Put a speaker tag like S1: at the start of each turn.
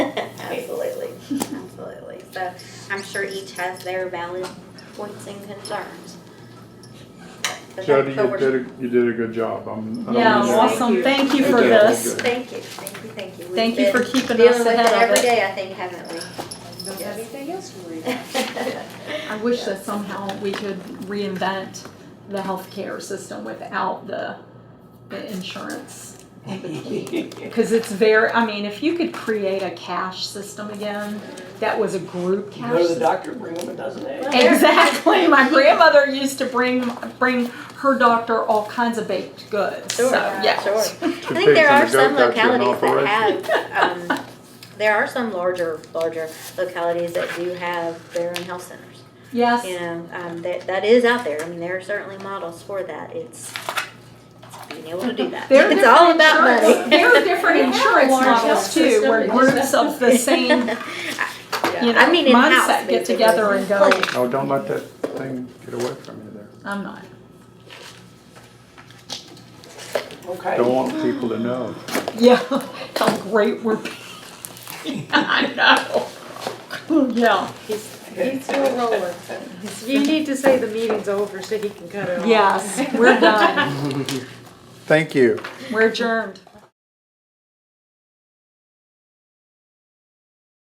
S1: Absolutely. So I'm sure each has their valid points and concerns. But
S2: Jody,
S1: that- but
S2: you
S1: we're-
S2: did, a- you did a good job. I'm, I don't
S3: Yeah,
S2: mean that.
S3: awesome. Thank you for
S2: Okay.
S3: this.
S1: Thank you, thank you, thank you. We've
S3: Thank you for
S1: been
S3: keeping us
S1: Dealing with it
S3: ahead
S1: every
S3: of it.
S1: day, I think, haven't we?
S4: Don't have anything else to worry about.
S1: I
S3: I wish that somehow we could reinvent the healthcare system without the, the insurance. Because it's very, I mean, if you could create a cash system again, that was a group
S5: Go
S3: cash
S5: to the
S3: system.
S5: doctor, bring them a dozen eggs.
S3: Exactly. My grandmother used to bring, bring her doctor all kinds of baked goods. So,
S1: Sure,
S3: yeah.
S1: sure.
S2: Two
S1: I think there are
S2: pigs
S1: some
S2: and a goat, that's an
S1: localities
S2: operation.
S1: that have, um, there are some larger, larger localities that do have their own health centers.
S3: Yes.
S1: you know, um, that, that is out there. I mean, there are certainly models for that. It's, it's being able to do that.
S3: They're
S1: It's all
S3: different
S1: about
S3: insurance-
S1: money.
S3: There are different insurance
S4: large health
S3: models too,
S4: system
S3: where
S4: that just-
S3: groups of the same, you
S1: I
S3: know,
S1: mean, in-house,
S3: mindset get
S1: basically.
S3: together and go,
S1: Like,
S2: Oh, don't let that thing get away from you there.
S3: I'm not.
S5: Okay.
S2: Don't want people to know.
S3: Yeah, how great we're being. I know. Yeah,
S4: He's, he's still rolling. You need to say the meeting's over so he can cut it off.
S3: yes, we're done.
S2: Thank you.
S3: We're adjourned.